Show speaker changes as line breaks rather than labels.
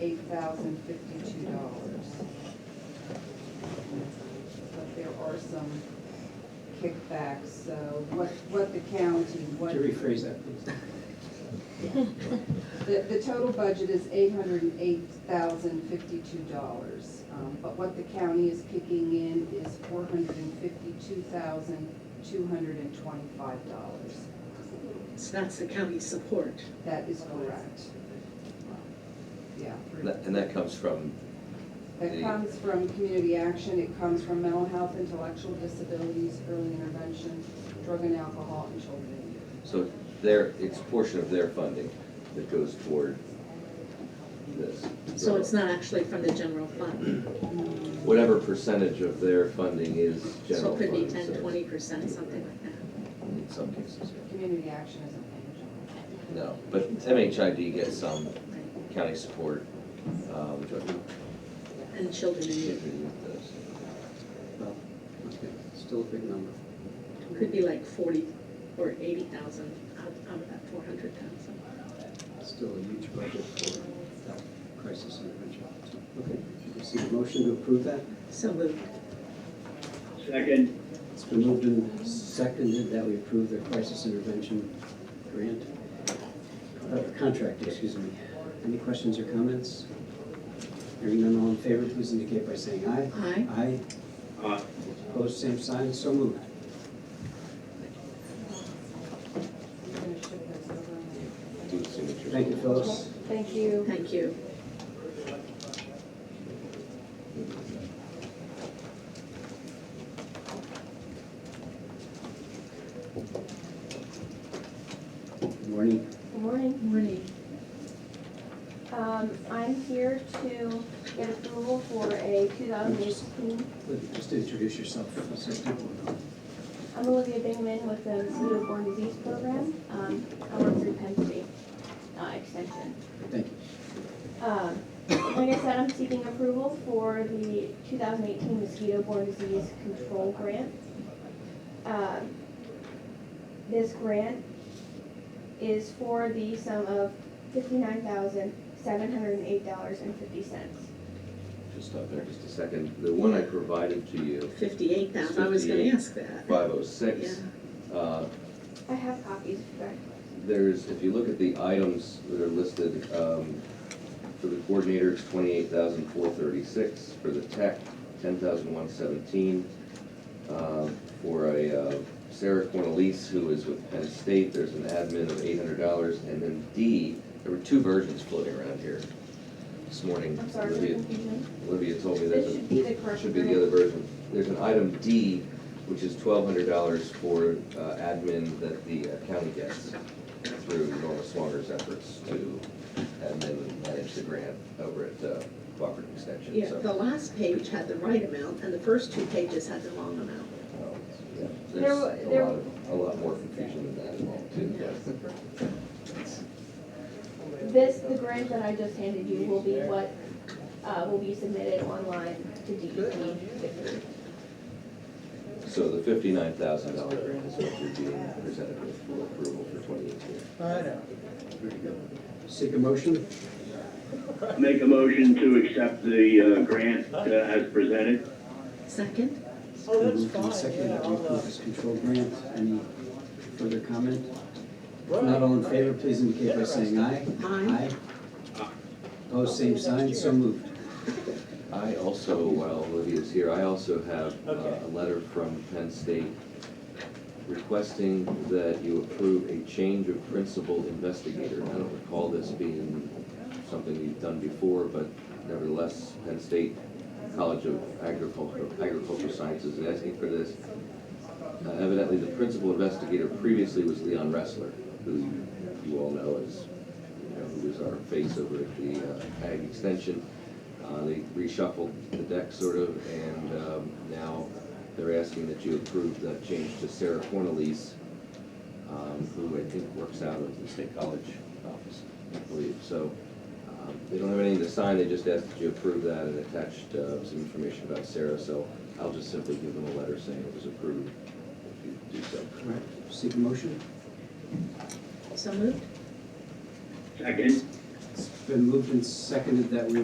eight thousand fifty-two dollars. But there are some kickbacks, so what, what the county, what.
Could you rephrase that, please?
The, the total budget is eight hundred and eight thousand fifty-two dollars, Um, but what the county is kicking in is four hundred and fifty-two thousand two hundred and twenty-five dollars.
So that's the county support.
That is correct. Yeah.
That- And that comes from,
That
The-
comes from community action, it comes from mental health, intellectual disabilities, early intervention, drug and alcohol, and children and youth.
so their, it's a portion of their funding that goes toward this.
So it's not actually from the general fund.
Whatever percentage of their funding is
So
general
it could be
fund.
ten,
so
twenty percent, something like that.
In some cases, yeah.
Community action isn't paying general.
no, but MHID gets some
Right.
county support, uh, which I think
And children in
it
need.
does.
Well, okay, Still a big number.
It Could be like forty or eighty thousand out out of that four hundred thousand.
Still a huge budget for that crisis intervention. So, Okay, you can see the motion to approve that.
So moved.
Second,
It's been moved and seconded that we approve the crisis intervention grant, uh, contract, excuse me. Any questions or comments? Hearing none, all in favor, please indicate by saying aye.
Aye.
Aye,
uh,
opposed, same sign, so moved.
You're gonna ship those over?
Do the signature.
Thank you, Phyllis.
Thank you.
Thank you.
Good morning.
Good morning.
Morning.
Um, I'm here to get approval for a 2018,
Just introduce yourself, so people know.
I'm Olivia Bingman with the Newborn Disease Program. Um, I work through Penn State uh, Extension.
Thank you.
Um, Like I said, I'm seeking approval for the 2018 mosquito-borne disease control grant. Um, This grant is for the sum of $59,708.50.
Just stop there just a second. The one I provided to you,
Fifty-eight thousand, I was gonna
58.
ask that.
five oh six, uh,
I have copies if you'd like.
There's, if you look at the items that are listed, um, for the coordinator, it's twenty-eight thousand four thirty-six, for the tech, ten thousand one seventeen. For a, uh, Sarah Cornelise, who is with Penn State, there's an admin of eight hundred dollars, and then D, there were two versions floating around here this morning.
I'm sorry for
Olivia-
the confusion.
Olivia told me that
This should be the correct.
should be the other version. There's an item D, which is twelve hundred dollars for uh, admin that the uh, county gets through Norma Swanger's efforms to admin and manage the grant over at uh, Cooperative Extension,
Yeah, the
so. um,
last page had the right amount and the first two pages had the wrong amount.
um, yeah,
There
There's
wa-
a
there-
lot, of- a lot more confusion than that involved too, but
This, the grant that I just handed you will be what, uh, will be submitted online to E DEP.
So the fifty-nine thousand dollar grant is what you're being presented with for approval for twenty eighteen.
Very good. Seek a motion?
make a motion to accept the uh, grant uh, as presented.
Second?
Oh,
Moved
that's
and
fine,
seconded
yeah,
to
I'll,
approve
uh,
this control grant. Any further comment? If
Right.
not all in favor, please indicate by saying aye.
Aye.
Aye.
Opposed, same sign, so moved.
I also, while Olivia's here, I also have
Okay.
uh, a letter from Penn State requesting that you approve a change of principal investigator. I don't recall this being something you've done before, but nevertheless, Penn State College of Agriculture, Agricultural Sciences is asking for this. Uh, Evidently, the principal investigator previously was Leon Ressler, who you all know is, you know, who was our face over at the uh, Ag Extension. Uh, They reshuffled the deck sort of, and um, now they're asking that you approve the change to Sarah Cornelise, um, who I think works out of the State College office, I believe. So um, they don't have anything to sign, they just asked that you approve that and attached uh, some information about Sarah. So I'll just simply give them a letter saying it was approved if you do so.
All right, seek a motion?
So moved?
Second,
It's been been moved and seconded that we